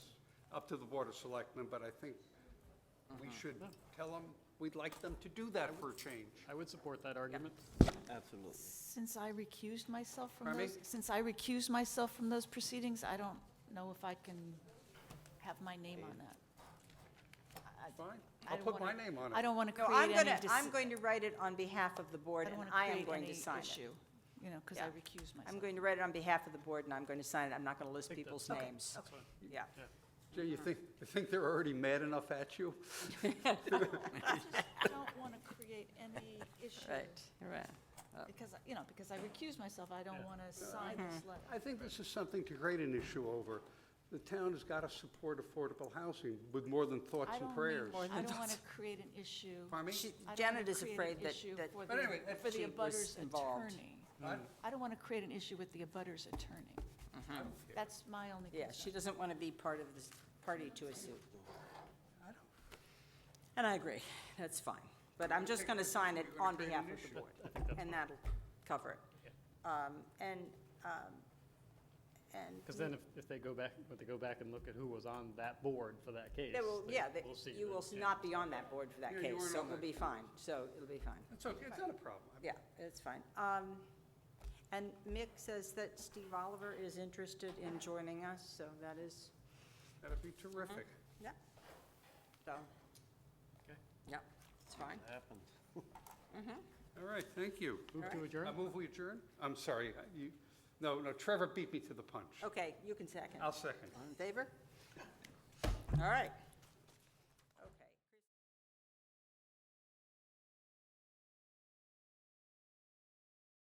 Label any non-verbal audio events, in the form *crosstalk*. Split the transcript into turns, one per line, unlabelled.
to the Board of Selectmen, but I think we
Uh-huh.
should tell them, we'd like them to do that for a change.
I would support that argument.
Absolutely.
Since I recused myself from
Pardon me?
those, since I recused myself from those proceedings, I don't know if I can have my name on that.
Fine,
I
I'll
don't
put my
wanna-
name on it.
I don't want to
No,
create
I'm
any.
going to,
dis-
I'm going to write it on behalf of the
I
board,
don't
and
wanna
I am
create
going to
any
sign it.
issue, You know, because I
Yeah.
recused myself.
I'm going to write it on behalf of the board, and I'm going to sign it. I'm not going to list people's names.
Oh.
Yeah.
Jay,
Uh-huh.
you think, you think they're already mad enough at you?
I just don't want to create
*laughs*
any issue,
right. Oh.
because, you know, because I recused myself, I don't want to sign
Mm-hmm.
this letter.
I think this is something to create an issue over. The town has got to support affordable housing with more than thoughts
I
and
don't
prayers.
need, I don't want to create an issue.
Pardon me?
She-
I don't wanna
Janet is
create an
afraid that,
issue
that
for
But
the-
anyway, that
For the
she was
abutter's
involved.
attorney.
I-
I don't want to create an issue with the abutter's attorney. That's my only
Yeah, she
concern.
doesn't want to be part of this, party to a suit. And I agree, that's fine. But I'm just going to sign it on behalf of the board, and that'll cover it. Um, And, um, and.
Because then if, if they go back, if they go back and look at who was on that board for that case.
They will,
they-
yeah, they-
uh, we'll see
you
that,
will
yeah.
not be on that board for that
Yeah, you
case,
weren't
so
on
it will
that
be fine. So it'll be fine.
It's okay, it's not a problem.
Yeah, it's fine. Um, And Mick says that Steve Oliver is interested in joining us, so that is,
That'd be terrific.
Uh-huh.
yeah. So,
Okay.
yeah, it's fine.
Happened.
All right, thank you.
Move to adjourn?
I move we adjourn? I'm sorry, you, no, no, Trevor beat me to the punch.
Okay, you can second.
I'll second.
All in favor? All right.